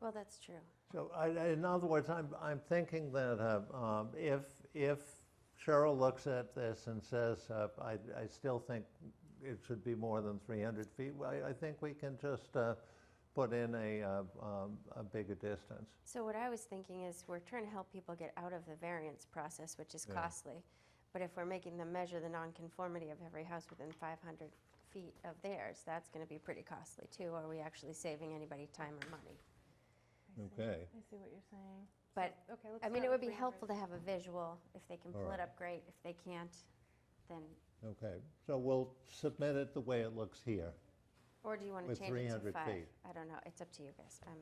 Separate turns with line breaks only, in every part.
Well, that's true.
So I- I- in other words, I'm, I'm thinking that uh, um, if, if Cheryl looks at this and says, uh, I, I still think it should be more than 300 feet, well, I, I think we can just uh, put in a, uh, um, a bigger distance.
So what I was thinking is we're trying to help people get out of the variance process, which is
Yeah.
costly. But if we're making them measure the nonconformity of every house within 500 feet of theirs, that's going to be pretty costly too. Are we actually saving anybody time or money?
Okay.
I see what you're saying.
But,
So, okay, let's
I mean,
start
it would
with
be
300.
helpful to have a visual. If they can
All
pull
right.
it up, great. If they can't, then,
Okay, so we'll submit it the way it looks here.
or do you want to
With
change it to
300
five?
feet.
I don't know. It's up to you guys. Um,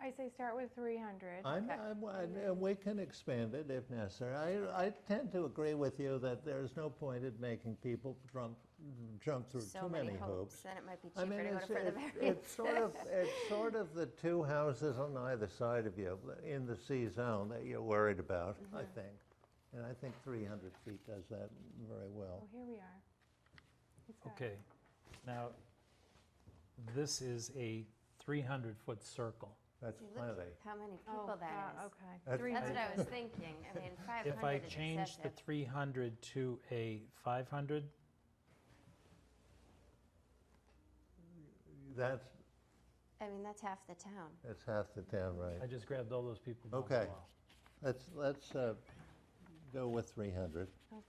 I say start with 300.
I'm,
Okay.
I'm, I- uh, we can expand it if necessary. I, I tend to agree with you that there's no point in making people jump, jump through
So
too
many
hoops.
hopes, then it might be
I mean,
cheaper to go to
it's-
further
it-
variance.
It's sort of, it's sort of the two houses on either side of you in the C zone that you're worried about, I think. And I think 300 feet does that very
Oh,
well.
here we are. He's got it.
Okay, now, this is a 300-foot circle.
That's
You look
plenty.
How many
Oh,
people that
God,
is.
okay.
That's-
Three
That's what
hundred.
I was thinking. I mean, 500 is
If I change the
excessive.
300 to a 500,
That's,
I mean, that's half the town.
that's half the town,
I
right?
just grabbed all those people down
Okay.
below.
Let's, let's uh, go with 300.
Okay.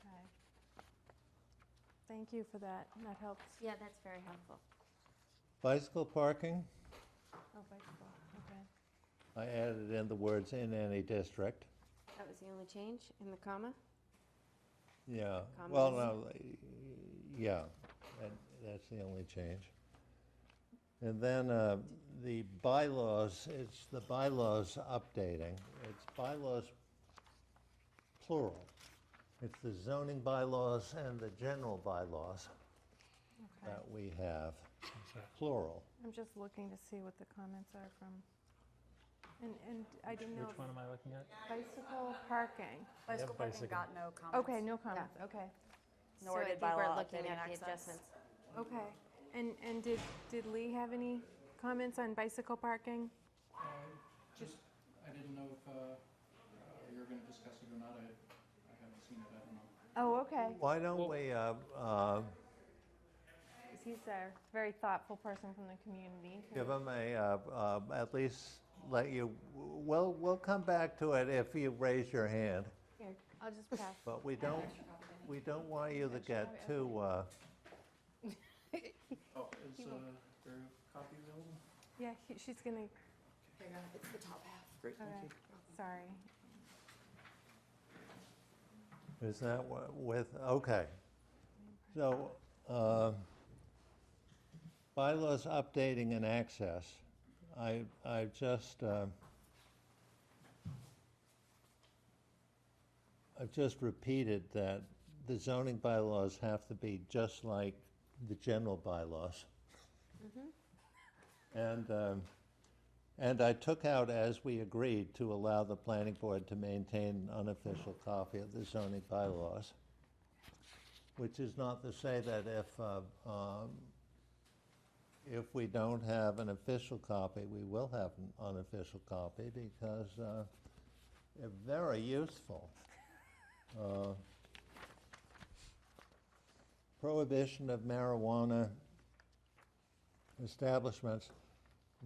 Thank you for that. That helps.
Yeah, that's very helpful.
Bicycle parking,
Oh, bicycle. Okay.
I added in the words "in any district."
That was the only change in the comma?
Yeah, well, no, eh,
Commas.
yeah, that, that's the only change. And then, uh, the bylaws, it's the bylaws updating, it's bylaws plural. It's the zoning bylaws and the general bylaws
Okay.
that we have,
Is that-
plural.
I'm just looking to see what the comments are from. And, and I didn't know
Which one am I looking at?
if bicycle parking.
have
Bicycle parking
bicycle.
got no comments.
Okay, no comments. Okay.
So
Nor did
I think
bylaw
we're looking
updating
at the
access.
adjustments.
Okay. And, and did, did Lee have any comments on bicycle parking?
Uh, Just, I didn't know if uh, uh, you were going to discuss it or not. I I haven't seen it, I don't know.
Oh, okay.
Why don't we, uh, uh,
He's a very thoughtful person from the community.
Give them a, uh, uh, at least let you, we'll, we'll come back to it if you raise your hand,
Here, I'll just pass.
but we don't, we don't want you to get too, uh,
Oh, is uh, there a copy available?
Yeah, he- she's gonna,
There you go. It's the top half.
Great, thank
okay,
you.
sorry.
is that wha- with, okay. So, uh, bylaws updating and access, I, I just, uh, I've just repeated that the zoning bylaws have to be just like the general bylaws. And, um, and I took out, as we agreed, to allow the planning board to maintain an unofficial copy of the zoning bylaws, which is not to say that if, uh, um, if we don't have an official copy, we will have an unofficial copy because uh, they're very useful. Uh, Prohibition of marijuana establishments.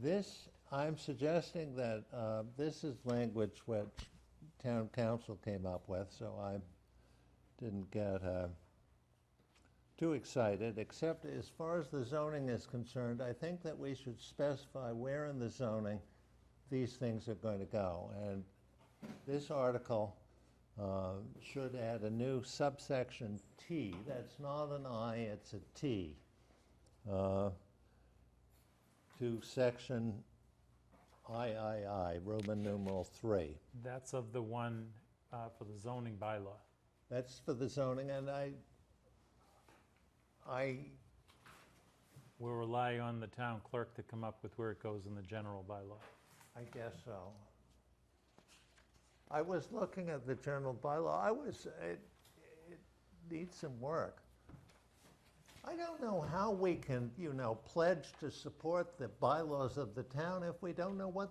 This, I'm suggesting that uh, this is language which town council came up with, so I didn't get uh, too excited, except as far as the zoning is concerned, I think that we should specify where in the zoning these things are going to go. And this article uh, should add a new subsection T. That's not an I, it's a T. Uh, to section III, Roman numeral three.
That's of the one uh, for the zoning bylaw.
That's for the zoning, and I, I,
We'll rely on the town clerk to come up with where it goes in the general bylaw.
I guess so. I was looking at the general bylaw, I was, it, it needs some work. I don't know how we can, you know, pledge to support the bylaws of the town if we don't know what